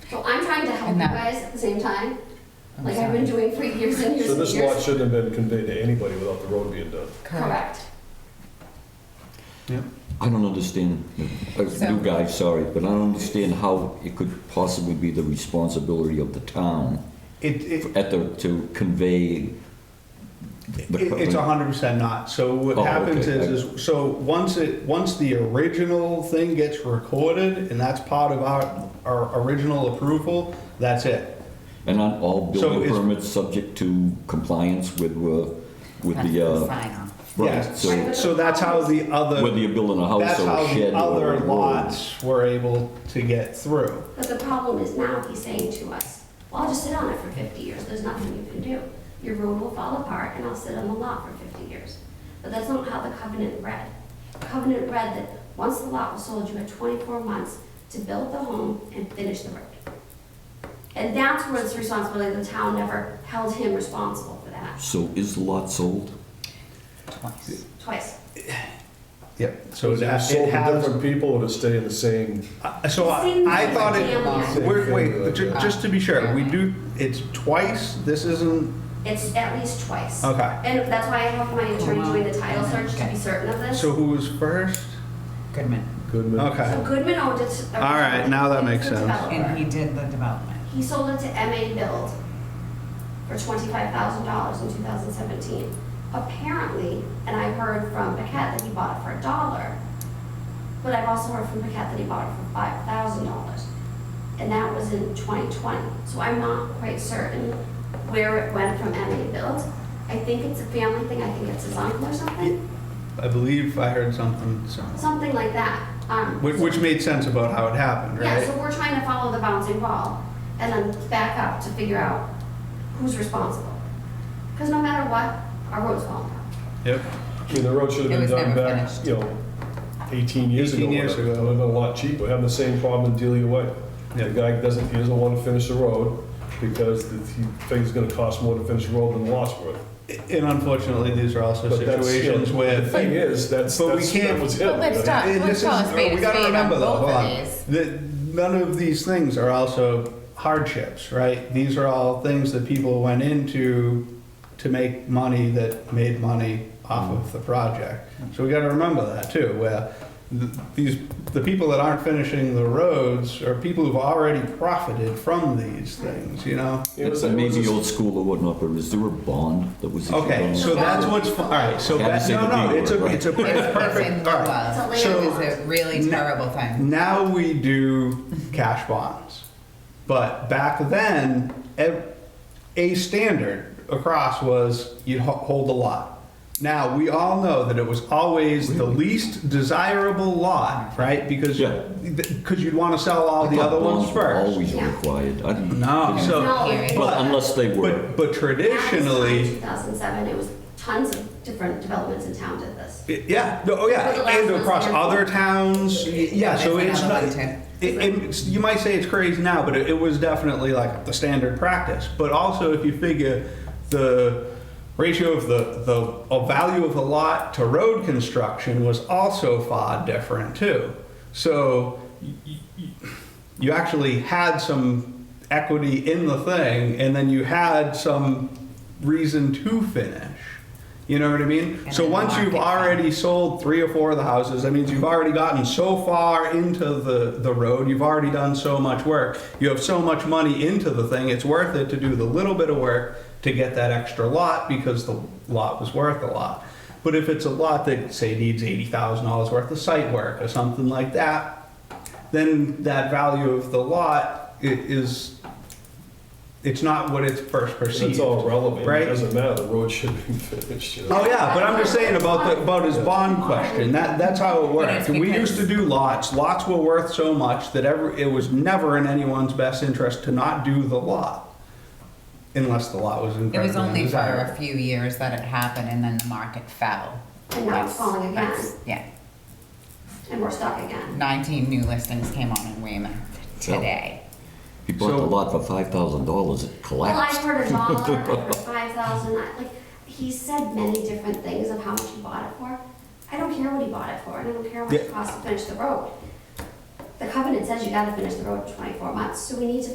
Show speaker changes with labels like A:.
A: So I'm trying to help you
B: And that-
A: guys at the same time,
B: I'm
A: like I've been doing for years and years
C: So
A: and
C: this lot
A: years.
C: shouldn't have been conveyed to anybody without the road being done.
B: Correct.
A: Correct.
D: I don't understand, uh,
B: So-
D: new guy, sorry, but I don't understand how it could possibly be the responsibility of the town
E: It, it,
D: at the, to convey. the-
E: it- it's hundred percent not. So what
D: Oh,
E: happens
D: okay.
E: is, is, so once it, once the original thing gets recorded and that's part of our, our original approval, that's it.
D: And on all
E: So
D: building
E: it's-
D: permits subject to compliance with, uh, with the,
B: That's the
D: uh,
B: sign off.
D: right,
E: Yes.
D: so
E: So that's how the other.
D: whether you're building a house
E: That's
D: or
E: how
D: a shed
E: the
D: or
E: other
D: a road.
E: lots were able to get through.
A: But the problem is now he's saying to us, well, I'll just sit on it for 50 years, there's nothing you can do. Your road will fall apart and I'll sit on the lot for 50 years. But that's not how the covenant read. The covenant read that once the lot was sold, you had 24 months to build the home and finish the road. And that's where it's responsibility, the town never held him responsible for that,
D: So is the lot sold?
B: twice.
A: twice.
E: Yep. So
C: So is it
E: that, it
C: sold to
E: has,
C: different people or to stay in the same?
E: uh, so I
A: Same
E: I thought
A: family.
E: it, wait, wait, ju- just to be sure, we
B: Okay.
E: do, it's twice, this isn't,
A: It's at least twice.
E: Okay.
A: And that's why I have my attorney doing the title search to be certain of this.
E: so who was first?
B: Goodman.
C: Goodman?
A: So
E: Okay.
A: Goodman owned it.
E: All right, now that makes
A: It's a
E: sense.
A: developer.
B: And he did the development.
A: He sold it to MA Build for twenty-five thousand dollars in two thousand seventeen. Apparently, and I heard from Paquette that he bought it for a dollar, but I've also heard from Paquette that he bought it for five thousand dollars. And that was in twenty twenty, so I'm not quite certain where it went from MA Build. I think it's a family thing, I think it's his uncle or something,
E: I believe I heard something similar,
A: something like that. Um,
E: which, which made sense about how it happened,
A: Yeah, so
E: right?
A: we're trying to follow the bouncing ball and then back up to figure out who's responsible. Because no matter what, our road's falling down.
E: Yep.
C: I mean, the road should
B: It
C: have been
B: was
C: done
B: never
C: back,
B: finished.
C: you know, 18 years ago.
E: 18 years
C: whatever. It
E: ago.
C: would have been a lot cheaper, having the same problem in Dealey Way.
E: Yeah.
C: The guy doesn't, he doesn't want to finish the road because the- he thinks it's going to cost more to finish the road than the lot's worth.
E: And unfortunately, these are also
C: But that's, you know,
E: situations where.
C: The thing is, that's,
E: But we
C: that's, that
E: can't-
C: was him.
F: But let's
C: I
F: talk,
C: mean,
E: And
F: let's
E: this
F: call a
E: is,
F: spade
E: we
F: a
E: gotta
F: spade on
E: remember though,
F: both
E: hold
F: of
E: on,
F: these.
E: that none of these things are also hardships, right? These are all things that people went into to make money that made money off of the project. So we gotta remember that too, where th- these, the people that aren't finishing the roads are people who've already profited from these things, you know?
C: it was-
D: It's
C: it was
D: maybe
C: a-
D: old school or whatnot, but is there a bond that was? issued
E: Okay,
D: on
E: so
D: it?
E: that's what's, all right, so
D: Haven't
E: that,
D: seen
E: no,
D: the
E: no,
D: B
E: it's a,
D: word, right?
E: it's a
B: It's
E: perfect,
B: within the
E: all right.
B: law.
A: It's a
B: It
E: So-
B: was a really terrible thing.
E: Now we do cash bonds. But back then, ev- a standard across was you'd ho- hold a lot. Now, we all know that it was always the least desirable lot, right? Because
D: Yeah.
E: because you'd want to sell all the
D: But
E: other ones
D: bonds were
E: first.
D: Always required. I didn't-
E: No,
D: didn't-
E: so,
A: No,
B: Period.
D: But
E: but,
D: Oh, unless they were,
E: but, but traditionally,
A: Two thousand seven, it was tons of different developments in town did this.
E: Yeah. No, oh, yeah.
A: For the last
E: And across
A: one's
E: other towns. y- Yeah. So
B: That's
E: it's not.
B: another one,
E: It,
B: too.
E: it's- you might say it's crazy now, but it, it was definitely like the standard practice. But also, if you figure the ratio of the the uh, value of a lot to road construction was also far different too. So y- y- you actually had some equity in the thing, and then you had some reason to finish. You know what I mean?
B: And
E: so
B: then the
E: once you've
B: market
E: already sold three or four of the houses, that means you've already gotten so far into the, the road, you've already done so much work, you have so much money into the thing, it's worth it to do the little bit of work to get that extra lot because the lot was worth a lot. But if it's a lot that, say, needs $80,000 worth of site work or something like that, then that value of the lot i- is, it's not what it's first perceived.
C: It's all relevant,
E: right?
C: it doesn't matter, the road should be finished, you know.
E: Oh yeah, but I'm just saying about the, about his bond question. That that's how it worked.
B: it's
E: We
B: because-
E: used to do lots. Lots were worth so much that ever it was never in anyone's best interest to not do the lot, unless the lot was
B: It
E: incredibly
B: was only for a
E: desirable.
B: few years that it happened and then the market fell.
A: And now it's
B: That's-
A: falling again.
B: that's- Yeah.
A: And we're stuck again.
B: 19 new listings came on in Raymond today.
D: he bought
E: So-
D: the lot for five thousand dollars, it
A: Well, I
D: collapsed.
A: heard a dollar, I heard five thousand, I, like, he said many different things of how much he bought it for. I don't care what he bought it for, and I don't care how much it
E: Yeah.
A: costs to finish the road. The covenant says you gotta finish the road in twenty-four months, so we need to